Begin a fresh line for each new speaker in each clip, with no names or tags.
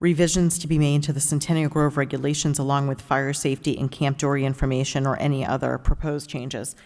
revisions to be made to the Centennial Grove regulations along with fire safety and Camp Dory information or any other proposed changes.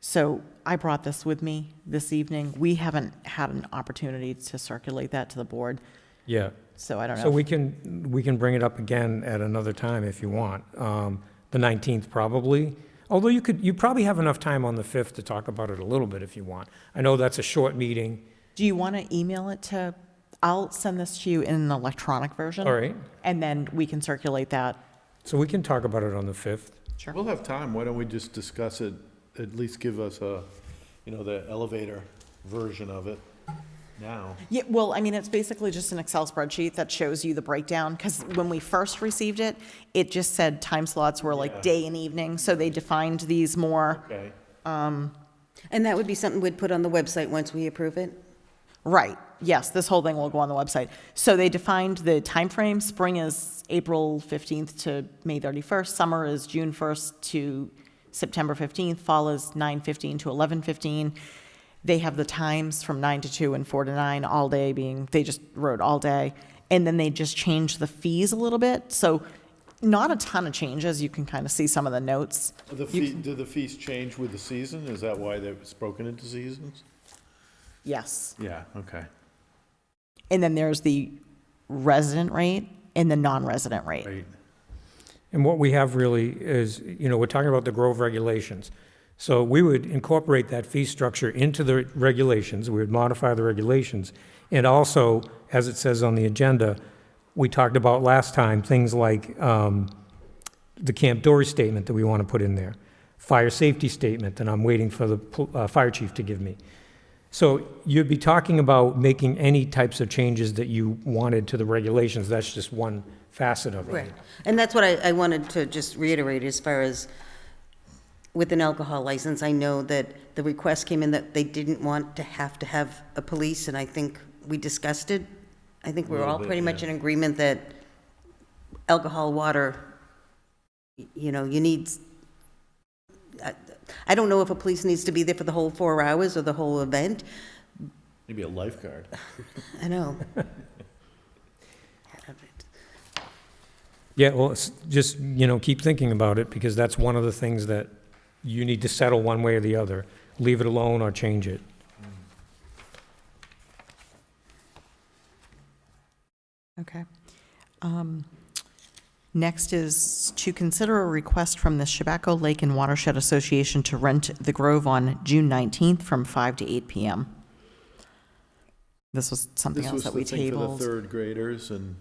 So I brought this with me this evening. We haven't had an opportunity to circulate that to the board,
Yeah,
so I don't
so
know.
we can, we can bring it up again at another time if you want. Um, The 19th probably, although you could, you probably have enough time on the 5th to talk about it a little bit if you want. I know that's a short meeting,
Do you want to email it to, I'll send this to you in an electronic version.
all right?
And then we can circulate that.
So we can talk about it on the 5th.
Sure.
We'll have time, why don't we just discuss it, at least give us a, you know, the elevator version of it now.
Yeah, well, I mean, it's basically just an Excel spreadsheet that shows you the breakdown, because when we first received it, it just said time slots were like day and evening, so they defined these more,
Okay.
And that would be something we'd put on the website once we approve it?
right, yes, this whole thing will go on the website. So they defined the time frame. spring is April 15th to May 31st, summer is June 1st to September 15th, fall is 9:15 to 11:15. They have the times from 9 to 2 and 4 to 9, all day being, they just wrote all day. And then they just changed the fees a little bit, so not a ton of changes, you can kind of see some of the notes.
The fee, do the fees change with the season? Is that why it's broken into seasons?
Yes.
Yeah, okay.
And then there's the resident rate and the non-resident rate.
Great.
And what we have really is, you know, we're talking about the Grove regulations. So we would incorporate that fee structure into the regulations, we would modify the regulations. And also, as it says on the agenda, we talked about last time, things like um, the Camp Dory statement that we want to put in there, fire safety statement, and I'm waiting for the pl- uh, fire chief to give me. So you'd be talking about making any types of changes that you wanted to the regulations, that's just one facet of it.
And that's what I, I wanted to just reiterate as far as with an alcohol license, I know that the request came in that they didn't want to have to have a police, and I think we discussed it. I think we're all
Little bit,
pretty much
yeah.
in agreement that alcohol, water, y- you know, you need, I- I don't know if a police needs to be there for the whole four hours or the whole event.
Maybe a lifeguard.
I know.
Yeah, well, it's just, you know, keep thinking about it, because that's one of the things that you need to settle one way or the other. Leave it alone or change it.
Okay. Um, Next is to consider a request from the Chabaco Lake and Watershed Association to rent the Grove on June 19th from 5 to 8 PM. This was something
This
else
was
that
the
we
thing for the
tabled.
third graders and,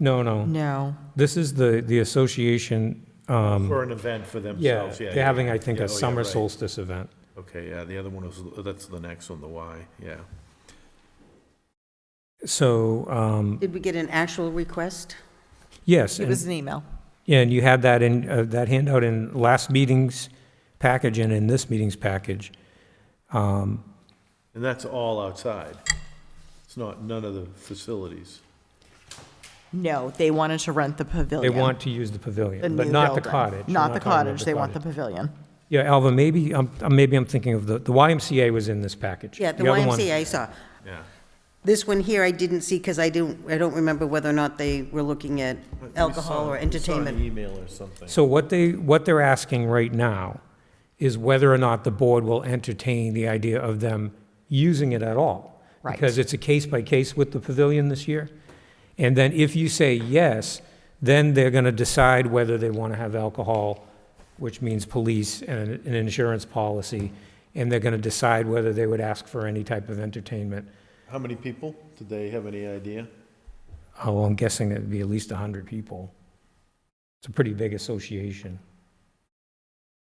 No, no,
No,
this is the, the association, um,
for an event for
yeah,
themselves, yeah.
they're having, I think,
Yeah,
a
oh, yeah,
summer
right.
solstice event.
Okay, yeah, the other one was, that's the next one, the Y, yeah.
So, um,
Did we get an actual request?
yes,
it
and,
was an email.
yeah, and you had that in, uh, that handout in last meeting's package and in this meeting's package. Um,
And that's all outside. It's not, none of the facilities.
No, they wanted to rent the
They
pavilion.
want to use the pavilion, but not the cottage. We're
Not the
talking about
cottage, they want the pavilion.
Yeah, Alva, maybe, um, uh, maybe I'm thinking of the, the YMCA was in this package.
Yeah, the
other one-
YMCA I saw.
Yeah.
This one here I didn't see because I don't, I don't remember whether or not they were looking at
But we
alcohol
saw-
or
We
entertainment.
saw an email or something.
So what they, what they're asking right now is whether or not the board will entertain the idea of them using it at all.
Right.
Because it's a case by case with the pavilion this year. And then if you say yes, then they're gonna decide whether they wanna have alcohol, which means police and an insurance policy. And they're gonna decide whether they would ask for any type of entertainment.
How many people? Did they have any idea?
Oh, I'm guessing it'd be at least 100 people. It's a pretty big association.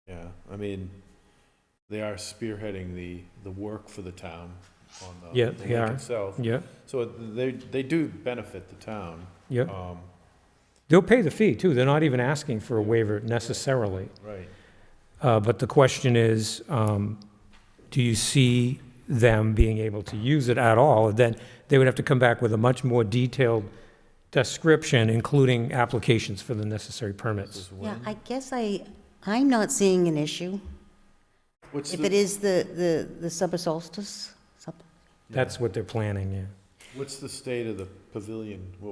Yeah, I mean, they are spearheading the, the work for the town on the
Yeah,
the
they
lake
are.
itself.
Yeah,
So they, they do benefit the town.
yeah.
Um,
They'll pay the fee, too. They're not even asking for a waiver necessarily.
Right.
Uh, But the question is, um, do you see them being able to use it at all? And Then they would have to come back with a much more detailed description, including applications for the necessary permits.
Yeah, I guess I, I'm not seeing an issue.
What's
If it
the,
is the, the, the summer solstice, sup-
That's what they're planning, yeah.
what's the state of the pavilion? What